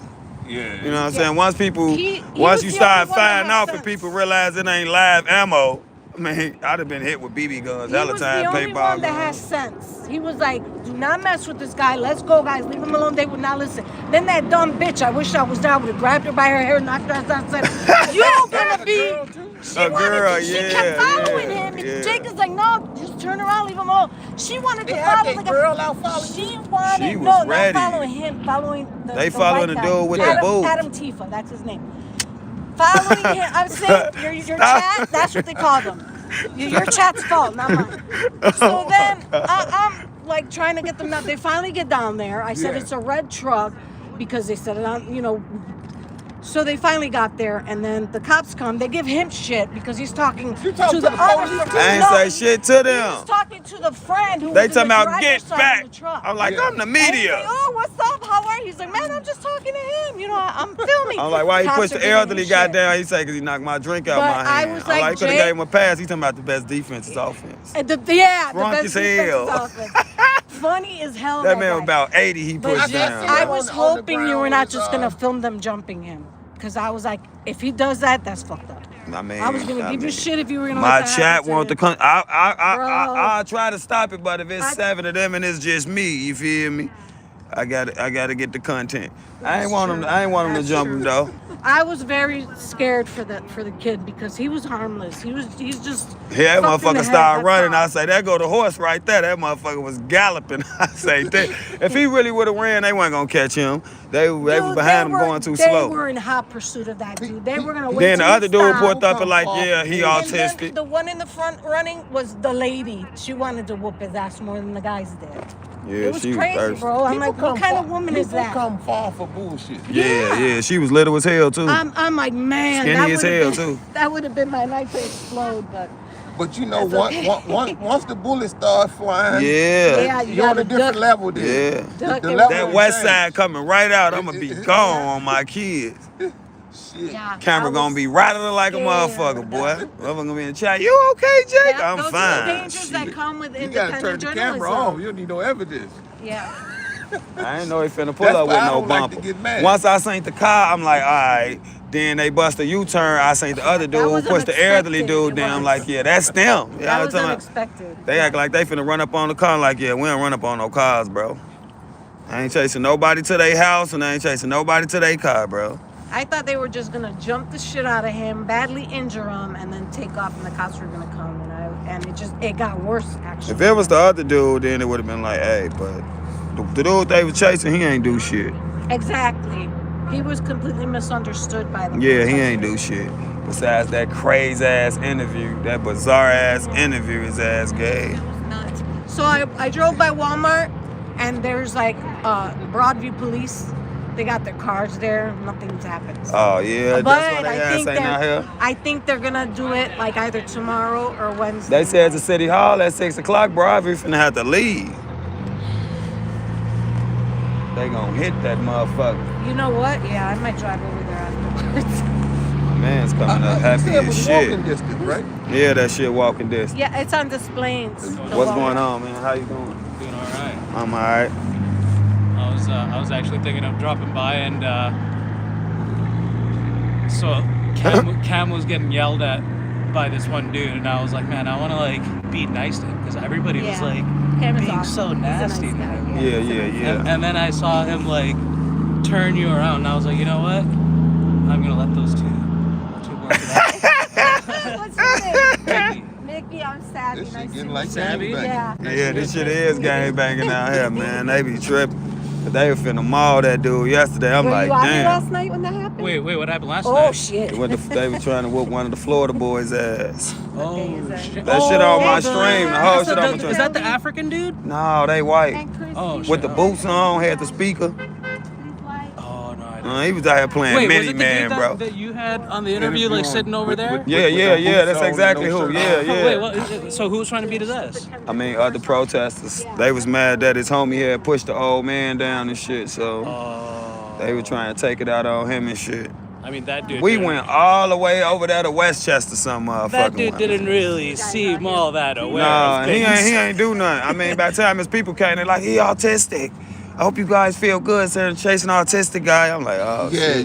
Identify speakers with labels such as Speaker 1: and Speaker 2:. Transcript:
Speaker 1: Yeah.
Speaker 2: You know what I'm saying? Once people,
Speaker 3: He- he was
Speaker 2: once you
Speaker 3: the
Speaker 2: start
Speaker 3: only one that
Speaker 2: firing
Speaker 3: had
Speaker 2: off and
Speaker 3: sense.
Speaker 2: people realize it ain't live ammo, I mean, I'd have been hit with BB guns,
Speaker 3: He
Speaker 2: hella
Speaker 3: was the
Speaker 2: time,
Speaker 3: only
Speaker 2: paintball
Speaker 3: one that had
Speaker 2: guns.
Speaker 3: sense. He was like, do not mess with this guy. Let's go, guys. Leave him alone. They would not listen. Then that dumb bitch, I wish I was there. I would have grabbed her by her hair, knocked her outside, said, You're gonna be. She
Speaker 2: A
Speaker 3: wanted
Speaker 2: girl,
Speaker 3: to,
Speaker 2: yeah,
Speaker 3: She kept following
Speaker 2: yeah,
Speaker 3: him.
Speaker 2: yeah.
Speaker 3: Jacob's like, No, just turn around, leave him alone. She wanted
Speaker 4: They
Speaker 3: to
Speaker 4: had
Speaker 3: follow
Speaker 4: that
Speaker 3: the
Speaker 4: girl out following
Speaker 3: She wanted,
Speaker 2: She was
Speaker 3: no,
Speaker 2: ready.
Speaker 3: not following him, following the
Speaker 2: They
Speaker 3: the
Speaker 2: following
Speaker 3: white
Speaker 2: the
Speaker 3: guy.
Speaker 2: dude with the
Speaker 3: Adam-
Speaker 2: boobs.
Speaker 3: Adam Tifa, that's his name following him. I'm saying your, your
Speaker 2: Stop.
Speaker 3: chat, that's what they call them. Your, your chat's fault, not mine.
Speaker 2: Oh
Speaker 3: So then I, I'm like trying to get them out. They finally get down there. I said
Speaker 1: Yeah.
Speaker 3: it's a red truck because they said it on, you know. So they finally got there, and then the cops come. They give him shit because he's talking
Speaker 4: You talking to
Speaker 3: the,
Speaker 4: the
Speaker 3: other.
Speaker 4: police?
Speaker 2: I ain't
Speaker 3: No,
Speaker 2: say
Speaker 3: he-
Speaker 2: shit to
Speaker 3: he
Speaker 2: them.
Speaker 3: was talking to the friend who
Speaker 2: They
Speaker 3: was in
Speaker 2: talking
Speaker 3: the
Speaker 2: about
Speaker 3: driver's
Speaker 2: get
Speaker 3: side of
Speaker 2: back.
Speaker 3: the truck.
Speaker 2: I'm like,
Speaker 1: Yeah.
Speaker 2: I'm the
Speaker 3: And he's
Speaker 2: media.
Speaker 3: like, oh, what's up? How are you? He's like, man, I'm just talking to him. You know, I- I'm filming.
Speaker 2: I'm like, why he
Speaker 3: Cops
Speaker 2: pushed
Speaker 3: are
Speaker 2: the
Speaker 3: giving him
Speaker 2: elderly guy
Speaker 3: shit.
Speaker 2: down? He said, because he knocked my drink out
Speaker 3: But
Speaker 2: my
Speaker 3: I
Speaker 2: hand.
Speaker 3: was
Speaker 2: I'm
Speaker 3: like,
Speaker 2: like, could have
Speaker 3: Jake-
Speaker 2: gave him a pass. He talking about the best defense is offense.
Speaker 3: And the, yeah,
Speaker 2: Drunk
Speaker 3: the
Speaker 2: as
Speaker 3: best defense is
Speaker 2: hell.
Speaker 3: offense. Funny as hell.
Speaker 2: That man
Speaker 3: guy.
Speaker 2: was about 80 he
Speaker 3: But
Speaker 2: pushed
Speaker 3: just-
Speaker 2: down.
Speaker 3: I
Speaker 4: him
Speaker 3: was
Speaker 4: on the- on the
Speaker 3: hoping
Speaker 4: ground
Speaker 3: you were not
Speaker 4: with,
Speaker 3: just
Speaker 4: uh,
Speaker 3: gonna film them jumping him, cause I was like, if he does that, that's fucked up.
Speaker 2: I mean,
Speaker 3: I was gonna give you
Speaker 2: mean,
Speaker 3: shit if you were gonna.
Speaker 2: My
Speaker 3: let that
Speaker 2: chat
Speaker 3: happen to
Speaker 2: want to
Speaker 3: him.
Speaker 2: come. I I I, I
Speaker 3: Bro.
Speaker 2: I try to stop it, but if it's
Speaker 3: I-
Speaker 2: seven of them and it's just me, you feel me? I got I got to get the content. I ain't want them. I ain't want them to
Speaker 3: That's
Speaker 2: jump
Speaker 3: true.
Speaker 2: him though.
Speaker 3: I was very scared for the for the kid because he was harmless. He was he's just.
Speaker 2: Yeah, that
Speaker 3: fucked in the
Speaker 2: motherfucker
Speaker 3: head,
Speaker 2: started
Speaker 3: that's
Speaker 2: running.
Speaker 3: all.
Speaker 2: I say, there go the horse right there. That motherfucker was galloping. I say, that. if he really would have ran, they weren't gonna catch him. They, they were
Speaker 3: Dude,
Speaker 2: behind
Speaker 3: they
Speaker 2: him
Speaker 3: were-
Speaker 2: going too
Speaker 3: they
Speaker 2: slow.
Speaker 3: were in hot pursuit of that dude. They were gonna wait.
Speaker 2: then the
Speaker 3: till he
Speaker 2: other dude
Speaker 3: stopped.
Speaker 2: pulled up and like,
Speaker 4: Come
Speaker 2: yeah, he
Speaker 4: on.
Speaker 3: And then
Speaker 2: autistic.
Speaker 3: the one in the front running was the lady. She wanted to whoop his ass more than the guys did.
Speaker 2: yeah,
Speaker 3: it was
Speaker 2: she was
Speaker 3: crazy,
Speaker 2: thirsty.
Speaker 3: bro. I'm
Speaker 4: People
Speaker 3: like, what
Speaker 4: come
Speaker 3: kind of
Speaker 4: fa-
Speaker 3: woman is
Speaker 4: people
Speaker 3: that?
Speaker 4: come fall for bullshit.
Speaker 2: Yeah,
Speaker 3: Yeah.
Speaker 2: yeah, she was little as hell too.
Speaker 3: I'm, I'm like, man,
Speaker 2: Skinny
Speaker 3: that
Speaker 2: as
Speaker 3: would've
Speaker 2: hell,
Speaker 3: been-
Speaker 2: too.
Speaker 3: That would have been my life to explode, but
Speaker 4: But you know,
Speaker 3: That's
Speaker 4: once,
Speaker 3: okay.
Speaker 4: once, once, once the bullets start flying,
Speaker 2: yeah.
Speaker 3: Yeah, you
Speaker 4: you're on a
Speaker 3: gotta
Speaker 4: different
Speaker 3: duck.
Speaker 4: level then.
Speaker 2: Yeah.
Speaker 4: The-
Speaker 3: Duck
Speaker 4: the level
Speaker 3: and run.
Speaker 2: That
Speaker 4: will
Speaker 2: west
Speaker 4: change.
Speaker 2: side coming right out, I'ma be gone on my kids.
Speaker 4: Shit.
Speaker 3: yeah. I
Speaker 2: Camera
Speaker 3: was-
Speaker 2: gonna be rattling like a
Speaker 3: scared.
Speaker 2: motherfucker, boy. Motherfucker gonna be in the chat. You okay, Jake?
Speaker 3: That-
Speaker 2: I'm
Speaker 3: those Are the
Speaker 2: fine.
Speaker 3: dangers that
Speaker 2: Shit.
Speaker 3: come with
Speaker 4: You gotta turn
Speaker 3: independent
Speaker 4: the
Speaker 3: journalism.
Speaker 4: camera off. You don't need no evidence.
Speaker 3: Yeah.
Speaker 2: I ain't know he finna pull
Speaker 4: That's
Speaker 2: up with
Speaker 4: why I
Speaker 2: no
Speaker 4: don't like to
Speaker 2: bumper.
Speaker 4: get mad.
Speaker 2: Once I seen the car, I'm like, all right. Then they bust a U-turn. I seen the other
Speaker 3: That was
Speaker 2: dude push the elderly
Speaker 3: unexpected,
Speaker 2: dude
Speaker 3: it
Speaker 2: down. I'm
Speaker 3: was.
Speaker 2: like, yeah, that's them. Yeah, I was
Speaker 3: That was
Speaker 2: talking about-
Speaker 3: unexpected.
Speaker 2: They act like they finna run up on the car. Like, yeah, we don't run up on no cars, bro. I ain't chasing nobody to their house, and I ain't chasing nobody to their car, bro.
Speaker 3: I thought they were just gonna jump the shit out of him, badly injure him, and then take off, and the cops were gonna come, and I, and it just it got worse actually.
Speaker 2: If it was the other dude, then it would have been like, hey, but the, the dude they was chasing, he ain't do shit.
Speaker 3: Exactly. He was completely misunderstood by them.
Speaker 2: Yeah, he ain't do shit. Besides that crazy ass interview, that bizarre ass interview, his ass gay.
Speaker 3: nuts. So I, I drove by Walmart and there's like uh, Broadview police. They got their cars there. Nothing's happened.
Speaker 2: Oh yeah,
Speaker 3: but
Speaker 2: that's why they
Speaker 3: I
Speaker 2: ass
Speaker 3: think
Speaker 2: ain't out
Speaker 3: they're,
Speaker 2: here.
Speaker 3: I think they're gonna do it like either tomorrow or Wednesday.
Speaker 2: They said to City Hall at six o'clock, bro. Ivory finna have to leave. They gonna hit that motherfucker.
Speaker 3: You know what? Yeah, I might drive over there afterwards.
Speaker 2: My man's coming
Speaker 4: I- I-
Speaker 2: up
Speaker 4: you
Speaker 2: happy
Speaker 4: said it was
Speaker 2: as shit.
Speaker 4: walking distance, right?
Speaker 2: Yeah, that shit walking this.
Speaker 3: yeah, it's on displays.
Speaker 2: What's going on, man? How you doing?
Speaker 5: Doing all right.
Speaker 2: I'm alright.
Speaker 5: I was uh, I was actually thinking of dropping by and uh, so Cam, Cam was getting yelled at by this one dude, and I was like, man, I want to like be nice to him because everybody
Speaker 3: Yeah.
Speaker 5: was like
Speaker 3: Cam is
Speaker 5: being
Speaker 3: awesome.
Speaker 5: so
Speaker 3: He's a nice
Speaker 5: nasty.
Speaker 3: guy,
Speaker 5: man.
Speaker 3: yeah.
Speaker 2: Yeah, yeah,
Speaker 5: And,
Speaker 2: yeah.
Speaker 5: and then I saw him like turn you around, and I was like, you know what? I'm gonna let those two two work it out.
Speaker 3: What's your name?
Speaker 5: Take me.
Speaker 3: Mickey, I'm savvy.
Speaker 4: This
Speaker 3: nice
Speaker 4: shit
Speaker 3: to
Speaker 4: getting
Speaker 3: meet
Speaker 4: like
Speaker 3: you.
Speaker 5: Savvy?
Speaker 4: gangbang.
Speaker 3: Yeah.
Speaker 2: Yeah, this shit is gang banging out here, man. They be tripping. But they finna maul that dude yesterday. I'm
Speaker 3: Were
Speaker 2: like,
Speaker 3: you out here
Speaker 2: damn.
Speaker 3: last night when that happened?
Speaker 5: Wait, wait, what happened last night?
Speaker 3: Oh shit.
Speaker 2: They went to- they were trying to whoop one of the Florida boys' ass.
Speaker 5: Oh shit!
Speaker 2: That shit on my
Speaker 5: Oh,
Speaker 2: stream, the whole shit on my
Speaker 5: Is that the African dude?
Speaker 2: No, they white.
Speaker 5: Oh, shit.
Speaker 2: With the boots on, had the speaker.
Speaker 5: Oh no! I didn't.
Speaker 2: Uh, he was out here playing
Speaker 5: Wait, was
Speaker 2: Mini
Speaker 5: it the
Speaker 2: Man,
Speaker 5: dude that,
Speaker 2: bro.
Speaker 5: that you had on the interview, like sitting over
Speaker 4: With-
Speaker 5: there?
Speaker 4: with-
Speaker 2: yeah,
Speaker 4: with
Speaker 2: yeah,
Speaker 4: the boots
Speaker 2: yeah. That's
Speaker 4: on and
Speaker 2: exactly
Speaker 4: no shirt.
Speaker 2: who. Yeah, yeah.
Speaker 5: Oh, wait, what is it? so who was trying to beat his ass?
Speaker 2: I mean, other protesters, they was mad that his homie had pushed the old man down and shit, so
Speaker 5: Oh.
Speaker 2: they were trying to take it out on him and shit.
Speaker 5: I mean, that dude.
Speaker 2: We
Speaker 5: didn't-
Speaker 2: went all the way over there to Westchester, some motherfucking
Speaker 5: That dude
Speaker 2: way.
Speaker 5: didn't really seem all that aware
Speaker 2: Nah,
Speaker 5: of
Speaker 2: he
Speaker 5: things.
Speaker 2: ain't, he ain't do nothing. I mean, by the time his people came, they're like, he autistic. I hope you guys feel good, sir, chasing autistic guy. I'm like, oh,
Speaker 4: Yeah,
Speaker 2: shit.